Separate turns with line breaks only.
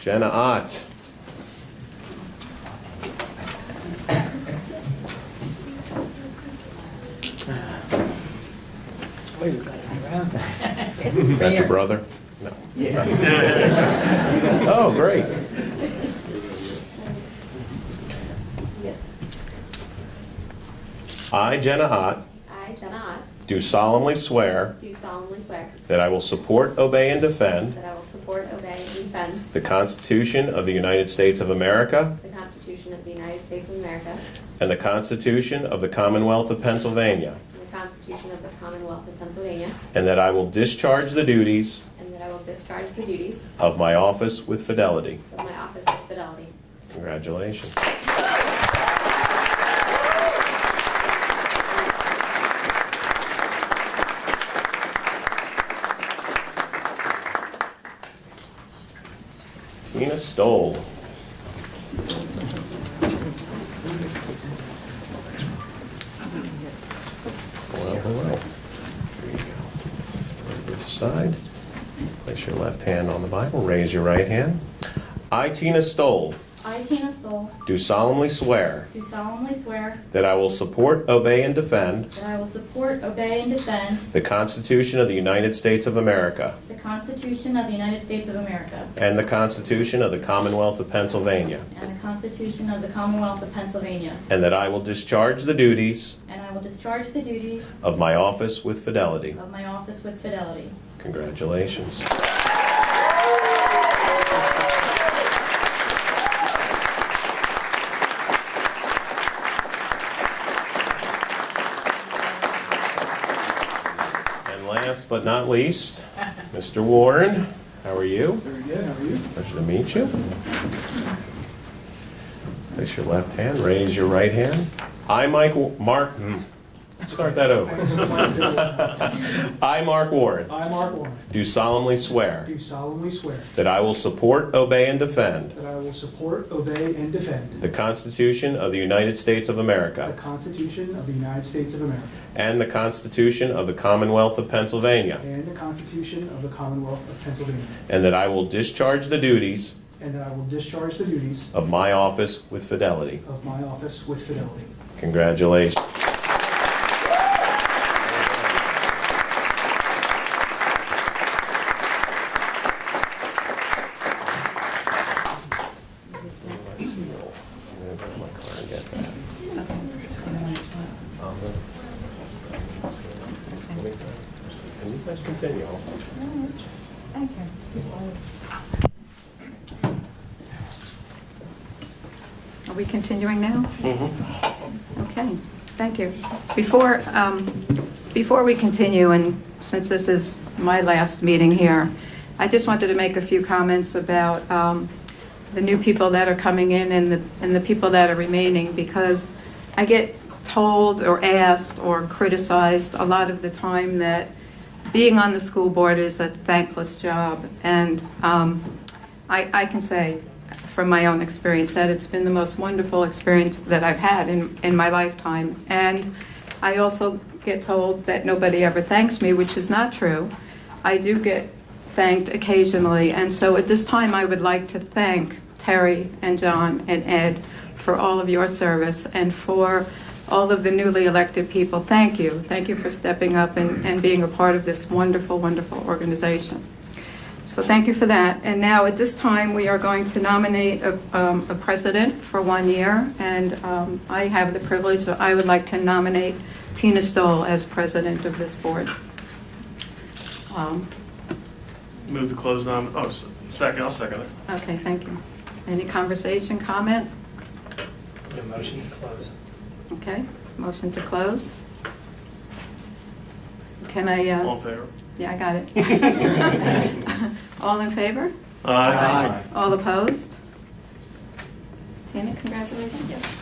Jenna Ott. That's your brother? No. Oh, great. I, Jenna Ott,
I, Jenna Ott,
do solemnly swear
do solemnly swear
that I will support, obey, and defend
that I will support, obey, and defend
the Constitution of the United States of America
the Constitution of the United States of America
and the Constitution of the Commonwealth of Pennsylvania,
and the Constitution of the Commonwealth of Pennsylvania,
and that I will discharge the duties
and that I will discharge the duties
of my office with fidelity.
of my office with fidelity.
Congratulations. Nina Stoll. Hello, hello. There you go. This side. Place your left hand on the Bible, raise your right hand. I, Tina Stoll,
I, Tina Stoll,
do solemnly swear
do solemnly swear
that I will support, obey, and defend
that I will support, obey, and defend
the Constitution of the United States of America
the Constitution of the United States of America
and the Constitution of the Commonwealth of Pennsylvania,
and the Constitution of the Commonwealth of Pennsylvania,
and that I will discharge the duties
and I will discharge the duties
of my office with fidelity.
of my office with fidelity.
Congratulations. And last but not least, Mr. Warren, how are you? Very good, how are you? Pleasure to meet you. Place your left hand, raise your right hand. I, Mike, Wa- Mark, hmm, start that over. I, Mark Warren.
I, Mark Warren,
Do solemnly swear
do solemnly swear
that I will support, obey, and defend
that I will support, obey, and defend
the Constitution of the United States of
the
America
Constitution of the United States of America
and the Constitution of the Commonwealth of Pennsylvania,
and the Constitution of the Commonwealth of Pennsylvania,
and that I will discharge the duties
and that I will discharge the duties
of my office with fidelity.
of my office with fidelity.
Congratulations. Let's see. I'm gonna go to my car and get that. Um, Can you guys continue?
Are we continuing now? Okay, thank you. Before, um, before we continue, and since this is my last meeting here, I just wanted to make a few comments about um, the new people that are coming in and the, and the people that are remaining, because I get told or asked or criticized a lot of the time that being on the school board is a thankless job, and um, I, I can say from my own experience that it's been the most wonderful experience that I've had in, in my lifetime. And I also get told that nobody ever thanks me, which is not true. I do get thanked occasionally. And so at this time, I would like to thank Terry and John and Ed for all of your service and for all of the newly elected people. Thank you. Thank you for stepping up and, and being a part of this wonderful, wonderful organization. So thank you for that. And now, at this time, we are going to nominate a um, a president for one year, and um, I have the privilege, I would like to nominate Tina Stoll as president of this board. Um,
Move to close nom, oh, s- second, I'll second it.
Okay, thank you. Any conversation, comment?
motion to close.
Okay, motion to close. Can I,
All
uh,
in favor?
yeah, I got it. All in favor?
Aye.
All opposed? Tina, congratulations.